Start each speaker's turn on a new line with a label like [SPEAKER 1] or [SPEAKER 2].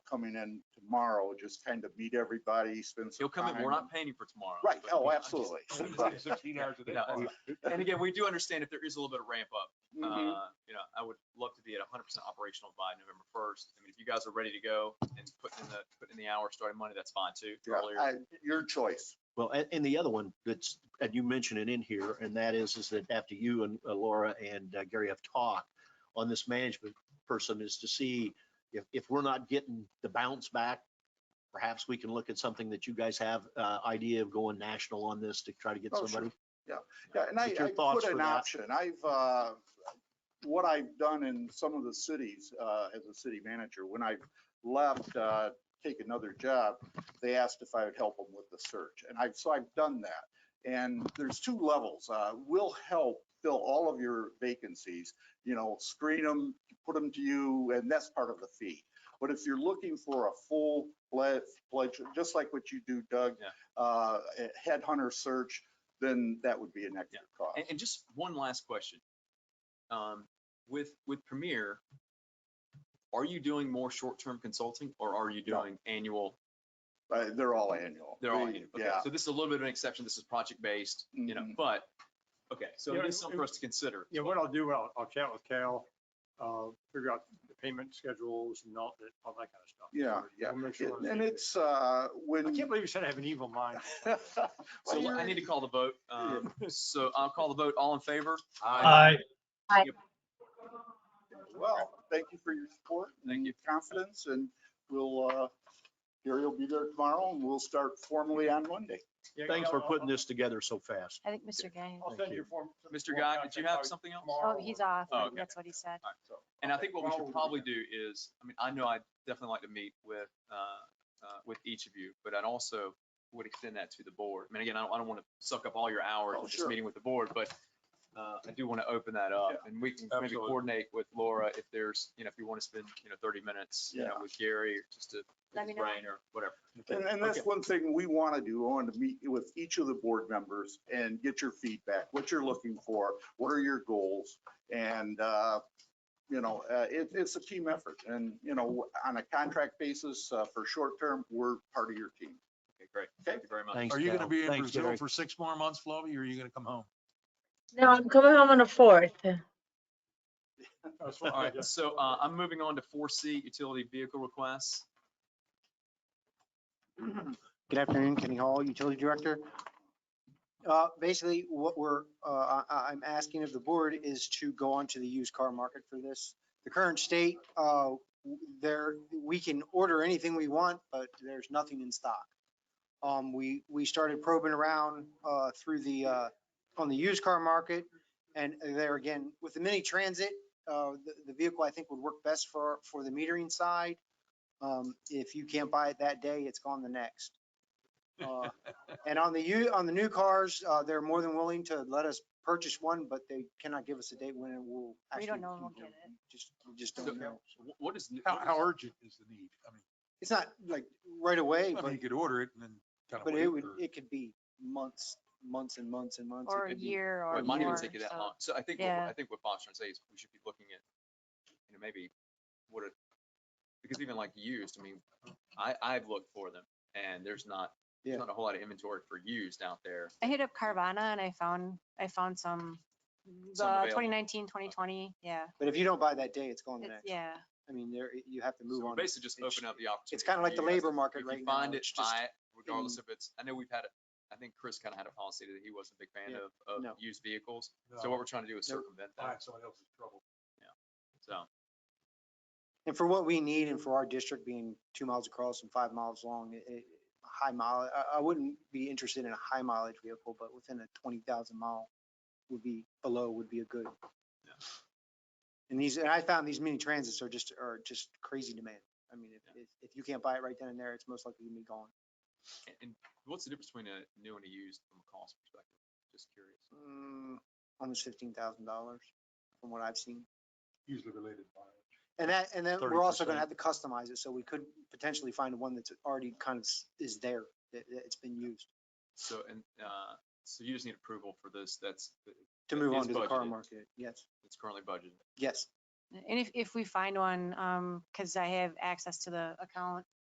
[SPEAKER 1] coming in tomorrow, just kind of meet everybody, spend some
[SPEAKER 2] He'll come
[SPEAKER 1] time.
[SPEAKER 2] in, we're not paying him for tomorrow.
[SPEAKER 1] Right,
[SPEAKER 2] but, you know,
[SPEAKER 1] oh,
[SPEAKER 2] I'm just-
[SPEAKER 1] absolutely.
[SPEAKER 2] I'm just-
[SPEAKER 1] But-
[SPEAKER 3] Sixteen hours a day.
[SPEAKER 2] No, it's- And again, we do understand if there is a little bit of ramp up,
[SPEAKER 1] Mhm.
[SPEAKER 2] uh, you know, I would love to be at hundred percent operational by November first. I mean, if you guys are ready to go and put in the, put in the hour starting Monday, that's fine too.
[SPEAKER 1] Yeah,
[SPEAKER 2] Earlier.
[SPEAKER 1] I- Your choice.
[SPEAKER 4] Well, and, and the other one that's, and you mentioned it in here, and that is, is that after you and uh, Laura and uh, Gary have talked on this management person is to see if, if we're not getting the bounce back, perhaps we can look at something that you guys have, uh, idea of going national on this to try to get
[SPEAKER 1] Oh, sure.
[SPEAKER 4] somebody.
[SPEAKER 1] Yeah, and I,
[SPEAKER 4] Get your
[SPEAKER 1] I
[SPEAKER 4] thoughts
[SPEAKER 1] put
[SPEAKER 4] for
[SPEAKER 1] an
[SPEAKER 4] that.
[SPEAKER 1] option. I've, uh, what I've done in some of the cities, uh, as a city manager, when I left, uh, take another job, they asked if I would help them with the search. And I've, so I've done that. And there's two levels. Uh, we'll help fill all of your vacancies, you know, screen them, put them to you, and that's part of the fee. But if you're looking for a full fledged, just like what you do, Doug,
[SPEAKER 2] Yeah.
[SPEAKER 1] uh, a headhunter search, then that would be an extra cost.
[SPEAKER 2] And, and just one last question. Um, with, with Premier, are you doing more short-term consulting or are you
[SPEAKER 1] No.
[SPEAKER 2] doing annual?
[SPEAKER 1] Uh, they're all annual.
[SPEAKER 2] They're all
[SPEAKER 1] They-
[SPEAKER 2] annual. Okay,
[SPEAKER 1] Yeah.
[SPEAKER 2] So this is a little bit of an exception. This is project-based, you know,
[SPEAKER 1] Mhm.
[SPEAKER 2] but, okay, so
[SPEAKER 3] Yeah,
[SPEAKER 2] it is something for
[SPEAKER 3] it-
[SPEAKER 2] us to consider.
[SPEAKER 3] Yeah, what I'll do, I'll, I'll chat with Cal, uh, figure out the payment schedules and all that, all that kind of stuff.
[SPEAKER 1] Yeah, yeah.
[SPEAKER 3] We'll make sure
[SPEAKER 1] It-
[SPEAKER 3] we're-
[SPEAKER 1] And it's, uh,
[SPEAKER 3] I
[SPEAKER 1] when.
[SPEAKER 3] can't believe you said I have an evil mind.
[SPEAKER 2] So
[SPEAKER 1] Well,
[SPEAKER 2] I need to call the vote. Um, so I'll call the vote. All in favor?
[SPEAKER 5] Aye.
[SPEAKER 1] you're- Well, thank you for your support.
[SPEAKER 2] Thank you.
[SPEAKER 1] and Confidence and we'll, uh, Gary will be there tomorrow and we'll start formally on Monday.
[SPEAKER 3] Yeah,
[SPEAKER 4] Thanks
[SPEAKER 3] I'll-
[SPEAKER 4] for
[SPEAKER 3] I'll-
[SPEAKER 4] putting this together so fast.
[SPEAKER 5] I think Mr. Gaines.
[SPEAKER 3] I'll send you a form.
[SPEAKER 2] Mr. Guy, did you have something else?
[SPEAKER 5] Oh, he's off.
[SPEAKER 2] Oh,
[SPEAKER 5] I
[SPEAKER 2] okay.
[SPEAKER 5] think That's what he said.
[SPEAKER 2] And I think what we
[SPEAKER 3] Well,
[SPEAKER 2] should probably do is, I mean, I know I'd definitely like to meet with, uh, uh, with each of you, but I'd also would extend that to the board. I mean, again, I don't, I don't want to suck up all your hours
[SPEAKER 1] Oh,
[SPEAKER 2] with just
[SPEAKER 1] sure.
[SPEAKER 2] meeting with the board, but, uh, I do want to open that up and we can maybe
[SPEAKER 3] absolutely.
[SPEAKER 2] coordinate with Laura if there's, you know, if you want to spend, you know, thirty minutes, you know, with Gary, or just to pick
[SPEAKER 5] Let
[SPEAKER 2] his
[SPEAKER 5] me know.
[SPEAKER 2] brain or whatever.
[SPEAKER 1] And, and that's one thing we want to do. I want to meet with each of the board members and get your feedback, what you're looking for, what are your goals? And, uh, you know, uh, it, it's a team effort and, you know, on a contract basis, uh, for short term, we're part of your team.
[SPEAKER 2] Okay, great. Thank you very much.
[SPEAKER 4] Thanks,
[SPEAKER 6] Are you going to
[SPEAKER 4] Cal.
[SPEAKER 6] be in
[SPEAKER 4] Thanks,
[SPEAKER 6] Brazil
[SPEAKER 4] Gary.
[SPEAKER 6] for six more months, Flavi, or are you going to come home?
[SPEAKER 7] No, I'm coming home on the fourth.
[SPEAKER 2] All right, so, uh, I'm moving on to four C, utility vehicle requests.
[SPEAKER 8] Good afternoon, Kenny Hall, Utility Director. Uh, Basically, what we're, uh, I- I'm asking of the board is to go on to the used car market for this. The current state, uh, there, we can order anything we want, but there's nothing in stock. Um, We, we started probing around uh, through the, uh, on the used car market. And there again, with the mini transit, uh, the the vehicle I think would work best for, for the metering side. Um, If you can't buy it that day, it's gone the next. Uh, And on the, u- on the new cars, uh, they're more than willing to let us purchase one, but they cannot give us a date when it will.
[SPEAKER 5] We don't
[SPEAKER 8] actually
[SPEAKER 5] know when
[SPEAKER 8] be
[SPEAKER 5] we'll
[SPEAKER 8] built.
[SPEAKER 5] get it.
[SPEAKER 8] Just, we just
[SPEAKER 2] So
[SPEAKER 8] don't know.
[SPEAKER 2] wh- What is?
[SPEAKER 6] How,
[SPEAKER 2] what is-
[SPEAKER 6] how urgent is the need? I mean,
[SPEAKER 8] It's not like right away,
[SPEAKER 6] I mean,
[SPEAKER 8] but,
[SPEAKER 6] you could order it and then kind of
[SPEAKER 8] but
[SPEAKER 6] wait.
[SPEAKER 8] it would,
[SPEAKER 6] or-
[SPEAKER 8] it could be months, months and months and months. It
[SPEAKER 5] Or a
[SPEAKER 8] could be-
[SPEAKER 5] year
[SPEAKER 2] Well,
[SPEAKER 5] or
[SPEAKER 2] It might even
[SPEAKER 5] more.
[SPEAKER 2] take you that
[SPEAKER 5] so-
[SPEAKER 2] long. So I think, what-
[SPEAKER 5] uh, yeah.
[SPEAKER 2] I think what Bob's trying to say is we should be looking at, you know, maybe what it, because even like used, I mean, I, I've looked for them and there's not,
[SPEAKER 8] Yeah.
[SPEAKER 2] there's not a whole lot of inventory for used out there.
[SPEAKER 5] I hit up Carvana and I found, I found some,
[SPEAKER 2] Some
[SPEAKER 5] uh,
[SPEAKER 2] available.
[SPEAKER 5] 2019, 2020. Yeah,
[SPEAKER 8] But if you don't buy that day, it's gone the
[SPEAKER 5] it's,
[SPEAKER 8] next.
[SPEAKER 5] yeah.
[SPEAKER 8] I mean, there, you have to
[SPEAKER 2] So
[SPEAKER 8] move
[SPEAKER 2] we're
[SPEAKER 8] on.
[SPEAKER 2] basically just
[SPEAKER 8] It sh-
[SPEAKER 2] opening up the opportunity.
[SPEAKER 8] It's kind of
[SPEAKER 2] for
[SPEAKER 8] like the
[SPEAKER 2] you guys
[SPEAKER 8] labor
[SPEAKER 2] to-
[SPEAKER 8] market
[SPEAKER 2] if
[SPEAKER 8] right
[SPEAKER 2] you
[SPEAKER 8] now.
[SPEAKER 2] Find it,
[SPEAKER 8] It's just-
[SPEAKER 2] buy it, regardless if it's, I know we've had, a- I think Chris kind of had a policy that he wasn't a big fan
[SPEAKER 8] Yeah,
[SPEAKER 2] of, of
[SPEAKER 8] no.
[SPEAKER 2] used vehicles. So
[SPEAKER 6] No,
[SPEAKER 2] what we're trying to do is
[SPEAKER 8] Nope.
[SPEAKER 2] circumvent that.
[SPEAKER 6] Find someone else's trouble.
[SPEAKER 2] So,
[SPEAKER 8] And for what we need and for our district being two miles across and five miles long, it, it- high mile, I, I wouldn't be interested in a high mileage vehicle, but within a twenty thousand mile would be, below would be a good.
[SPEAKER 2] Yeah.
[SPEAKER 8] And these, and I found these mini transits are just, are just crazy demand. I mean, if, if- if you can't buy it right then and there, it's most likely gonna be gone.
[SPEAKER 2] and- and what's the difference between a new and a used from a cost perspective? Just curious.
[SPEAKER 8] Mm, Almost fifteen thousand dollars from what I've seen.
[SPEAKER 6] Usually related by.
[SPEAKER 8] And that, and then we're also
[SPEAKER 6] 30%.
[SPEAKER 8] gonna have to customize it, so we could potentially find one that's already kind of s- is there, that, that it's been used.
[SPEAKER 2] So, and, uh, so you just need approval for this, that's,
[SPEAKER 8] To move
[SPEAKER 2] is
[SPEAKER 8] on to the car
[SPEAKER 2] budgeted.
[SPEAKER 8] market, yes,
[SPEAKER 2] that's currently budgeted.
[SPEAKER 8] yes.
[SPEAKER 5] And if, if we find one, um, cause I have access to the account,